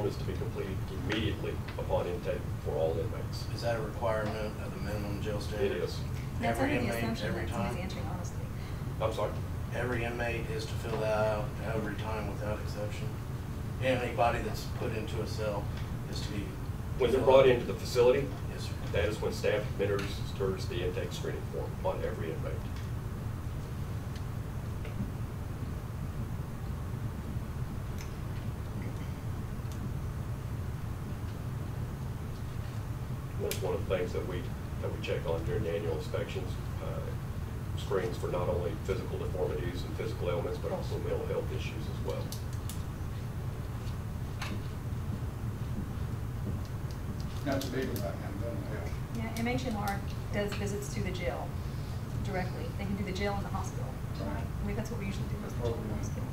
is to be completed immediately upon intake for all inmates. Is that a requirement of the minimum jail It standard? is. That's Every under the inmate, assumption every that somebody's time? answering honestly. I'm sorry? Every inmate is to fill that out every time without exception? Anybody that's put into a cell is to be. When they're brought into the facility, Yes, sir. that is when staff administers the intake screening form on every inmate. And That's one of the things that we, that we check on during the annual inspections, uh, screens for not only physical deformities and physical ailments, but also mental health issues as well. That's big about him, doesn't Yeah, MHMR does visits to the jail directly. They can do the jail and the hospital. Right. I mean, that's what we usually do, is the jail and the hospital.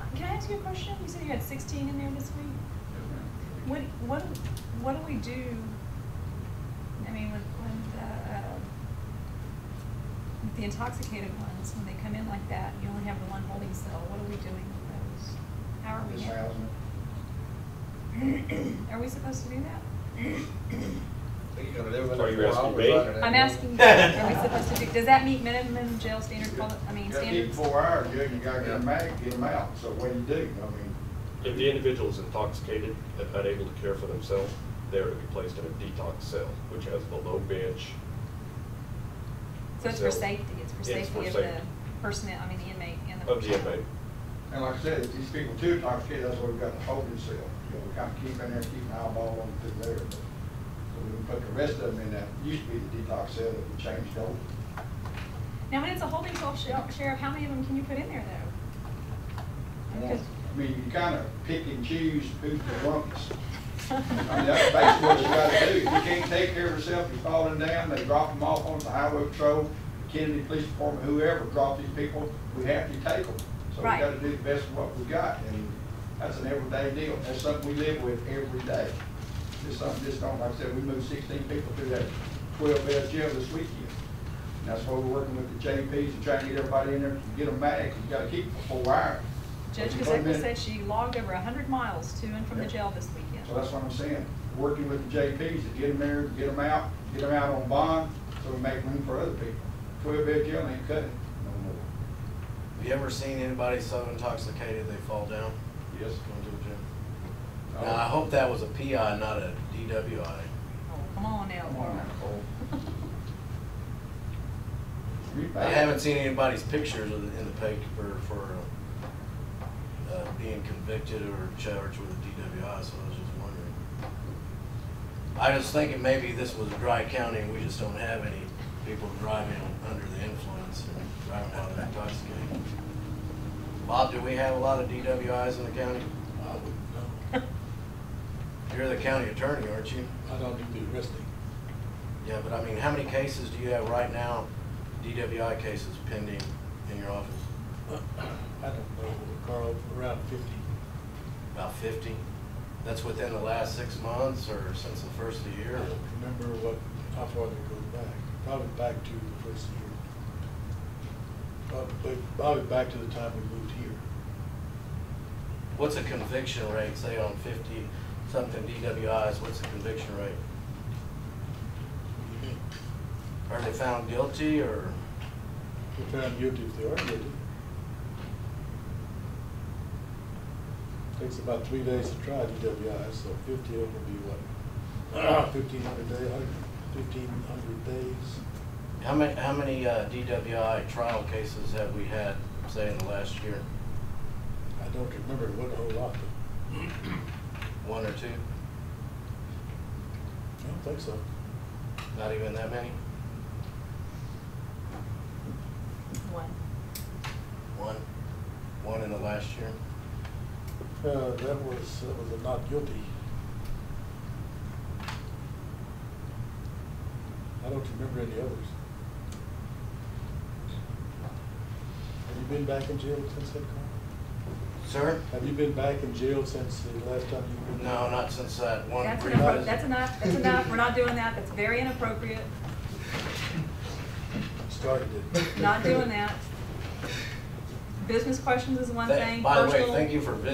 Uh, Can I ask you a question? You said you had sixteen in there this week? it? What, what, what do we do, I mean, with, with, uh, uh, with the intoxicated ones, when they come in like that, you only have the one holding cell, what are we doing with those? How are we? Just handling- housing Are we supposed to do that? Are you asking me? Uh, I'm asking, are we supposed to do, does that meet minimum jail standard, poli- I mean, You gotta keep standards? four hours, you, you gotta get them Yeah. out, get them out, so what do you do? I mean, If the individual is intoxicated and unable to care for themselves, they are to be placed in a detox cell, which has the low bench. So it's for So- safety, it's for It's safety for of the safety. personnel, I mean, the inmate and the. Of the personnel. inmate. and like I said, if these people too intoxicated, that's why we've got to hold this cell. You know, we kind of keep in there, keep an eyeball on them through there. but- So we can put the rest of them in that, used to be the detox cell that we changed over. Now, when it's a holding cell, shel- Sheriff, how many of them can you put in there though? I mean, you kind of pick and choose who's the drunkest. I mean, that's basically what you gotta do. If you can't Because- take care of yourself, you're falling down, they drop them off on the highway patrol, Kennedy Police Department, whoever drop these people, we have to take them. So we Right. gotta do the best of what we got, and that's an everyday deal. That's something we live with every day. It's something, just don't, like I said, we moved sixteen people through that twelve bed jail this weekend. And that's why we're working with the JPs and trying to get everybody in there, get them back, you gotta keep them for four hours. Judge But you put 'em Gazeka in- said she logged over hundred miles to and from the Yeah. jail this weekend. so that's what I'm saying, working with the JPs to get them there, get them out, get them out on bond, so we make room for other people. Twelve bed jail ain't cutting no more. Have you ever seen anybody so intoxicated they fall down? Yes. Going to the gym? Now, I hope that was a PI, not a DWI. Oh, Come on now, Come on, Laura. Nicole. You I bad. haven't seen anybody's pictures of the- in the paper for uh, being convicted or charged with a DWI, so I was just wondering. I was thinking maybe this was a dry county and we just don't have any people driving under the influence or driving while they're intoxicated. Bob, do we have a lot of DWIs in the county? I wouldn't know. You're the county attorney, aren't you? I don't do the arresting. Yeah, but I mean, how many cases do you have right now, DWI cases pending in your office? I don't know, Carl, around fifty. About fifty? That's within the last six months or since the first of the I year? don't remember what, how far that goes back. Probably back to the first year. Probably, probably back to the time we moved here. What's a conviction rate, say on fifty something DWIs, what's the conviction rate? What do you mean? Are they found guilty or, We're found guilty if they are guilty. Takes about three days to try DWI, so fifty of them would be what? Fifteen hundred day, fifteen hundred days. how many, how many uh, DWI trial cases have we had, say in the last year? I don't remember, it wasn't a whole lot, but One or two? I don't think so. Not even that many? One. One? One in the last year? Uh, that was, that was a not guilty. I don't remember any others. Have you been back in jail since that, Carl? Sir? Have you been back in jail since the last time you've been? No, not since that one. That's previous- enough, that's enough, that's enough, we're not doing that, that's very inappropriate, Started it. not doing that. Business questions is one Thank- thing, By the way, personal- thank you for visiting.